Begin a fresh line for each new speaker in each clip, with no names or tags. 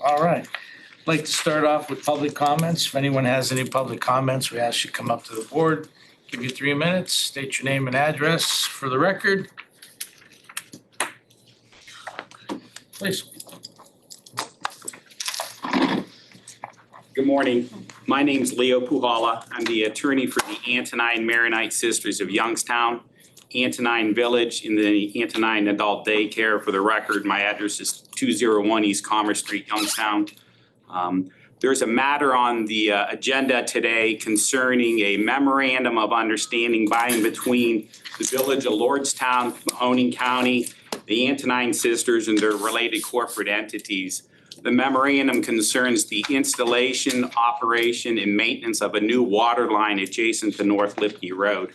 All right. I'd Like to start off with public comments. If anyone has any public comments, we ask you come up to the board. Give you three minutes, state your name and address for the record. Please.
Good morning. My name's Leo Puhala. I'm the attorney for the Antonine Maronite Sisters of Youngstown, Antonine Village, and the Antonine Adult Daycare. For the record, my address is 201 East Commerce Street, Youngstown. Um, There's a matter on the uh, agenda today concerning a memorandum of understanding by and between the Village of Lordstown, Mahoning County, the Antonine Sisters, and their related corporate entities. The memorandum concerns the installation, operation, and maintenance of a new water line adjacent to North Lipke Road.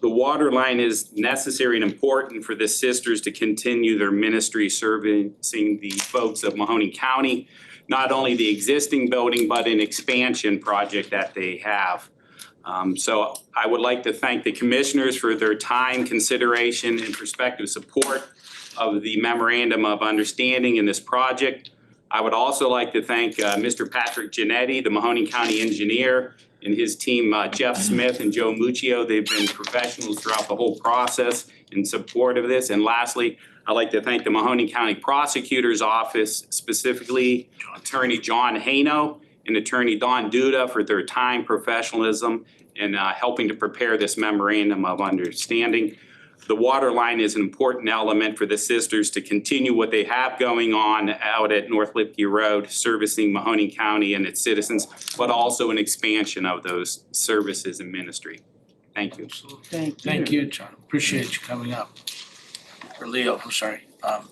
The water line is necessary and important for the sisters to continue their ministry servicing the folks of Mahoning County, not only the existing building, but an expansion project that they have. Um, So I would like to thank the commissioners for their time, consideration, and prospective support of the memorandum of understanding in this project. I would also like to thank uh, Mr. Patrick Genetti, the Mahoning County engineer, and his team, uh, Jeff Smith and Joe Muccio. They've been professionals throughout the whole process in support of this. And lastly, I'd like to thank the Mahoning County Prosecutor's Office, specifically Attorney John Hano and Attorney Don Duda for their time, professionalism, and uh, helping to prepare this memorandum of understanding. The water line is an important element for the sisters to continue what they have going on out at North Lipke Road, servicing Mahoning County and its citizens, but also an expansion of those services and ministry. Thank you.
Thank you.
Thank you, John. Appreciate you coming up. Or Leo, I'm sorry. Um,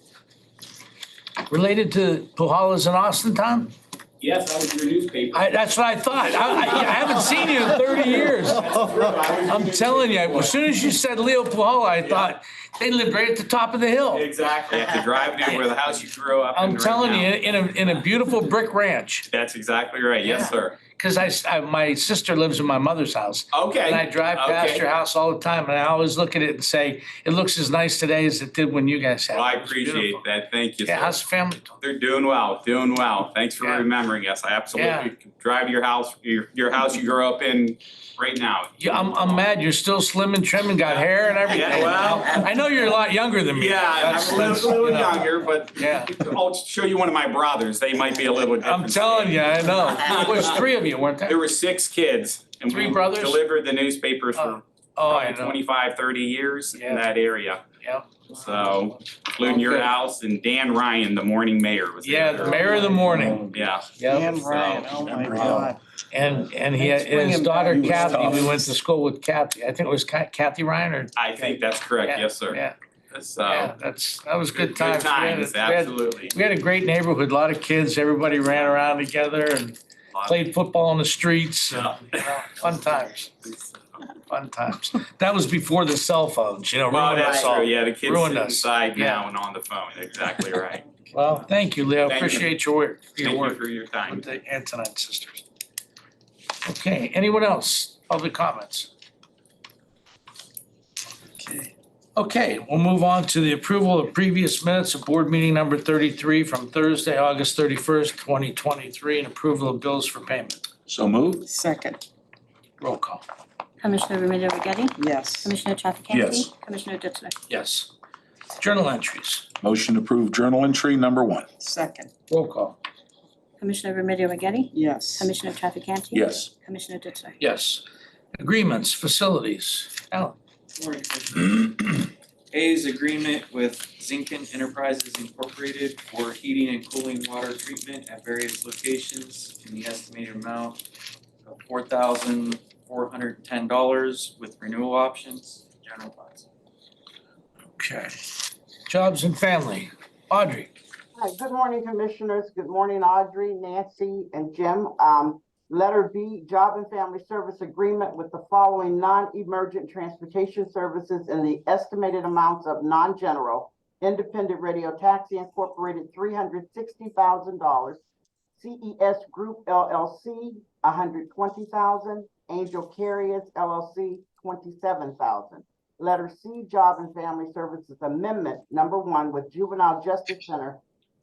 Related to Pujolas and Austin, Tom?
Yes, I was your newspaper.
I, that's what I thought. I, I- I haven't seen you in thirty years. I'm telling you, as soon as you said Leo Pujola, I thought they lived right at the top of the hill.
Exactly.
Have to drive down where the house you grew up. in
I'm
right
telling
now.
you, in a, in a beautiful brick ranch,
That's exactly right. Yes, sir.
because I, s- I- my sister lives in my mother's house. And I
Okay.
drive past
Okay.
your house all the time, and I always look at it and say, it looks as nice today as it did when you guys had it.
Well, I
It was
appreciate
beautiful.
that. Thank you,
Yeah,
sir.
how's the family? doing?
They're doing well, doing well. Thanks for
Yeah.
remembering us. I
Yeah.
absolutely could drive to your house, your, your house you grew up in right now.
Yeah, I'm, I'm mad you're still slim and trim and got hair and everything.
Yeah, well-
I know you're a lot younger than me.
Yeah,
That's-
I'm a little-
that's,
little
you know.
younger, but
Yeah.
I'll show you one of my brothers. They might be a little different.
I'm telling you, I know. There was three of you, weren't
There
there?
were six kids. and
Three
we
brothers?
Delivered the newspapers
Oh,
for
Oh, I
probably
know.
25, 30 years
Yeah.
in that area.
Yeah.
So including your
Okay.
house and Dan Ryan, the morning mayor was
Yeah,
there.
the mayor of the morning.
Yeah,
Yeah,
Dan Ryan, oh my God.
and, and he,
Thanks for
his
bringing
daughter
back- He was tough.
Kathy, we went to school with Kathy. I think it was Ka- Kathy Ryan or,
I think that's correct, yes, sir.
yeah, yeah,
So.
that's, that was good times. We had a-
times,
we had-
absolutely.
We had a great neighborhood, a lot of kids, everybody ran around together and played football on the streets. and,
Yeah.
you know, Fun times, fun times. That was before the cell phones, you know,
Well,
Oh, ruined
that's
us all.
true, yeah, the kids
Ruined
sit
us.
inside
Yeah.
now and on the phone, exactly right.
Well, thank you, Leo.
Thank you.
Appreciate your work, your
Thank you
work
for your time.
with the Antonine sisters. Okay, anyone else? Public comments? Okay. Okay, we'll move on to the approval of previous minutes of board meeting number thirty-three from Thursday, August thirty-first, twenty twenty-three, and approval of bills for payment.
So moved?
Second,
Roll call.
Commissioner Remedy Agati?
yes.
Commissioner Trafficante?
Yes.
Commissioner Ditzler?
Yes. Journal entries.
Motion to approve journal entry number one.
Second,
Roll call.
Commissioner Remedy Agati?
yes.
Commissioner Trafficante?
Yes.
Commissioner Ditzler?
Yes. Agreements, facilities. Alan.
A is agreement with Zinkin Enterprises Incorporated for heating and cooling water treatment at various locations in the estimated amount of four thousand four hundred and ten dollars with renewal options, general funds.
Okay. Jobs and family. Audrey.
Hi, good morning, Commissioners. Good morning, Audrey, Nancy, and Jim. Um, letter B, Job and Family Service Agreement with the following non-emergent transportation services in the estimated amounts of non-general, Independent Radio Taxi Incorporated, three hundred sixty thousand dollars, CES Group LLC, $120,000. Angel Carriers LLC, twenty-seven thousand. dollars Letter C, Job and Family Services Amendment Number One with Juvenile Justice Center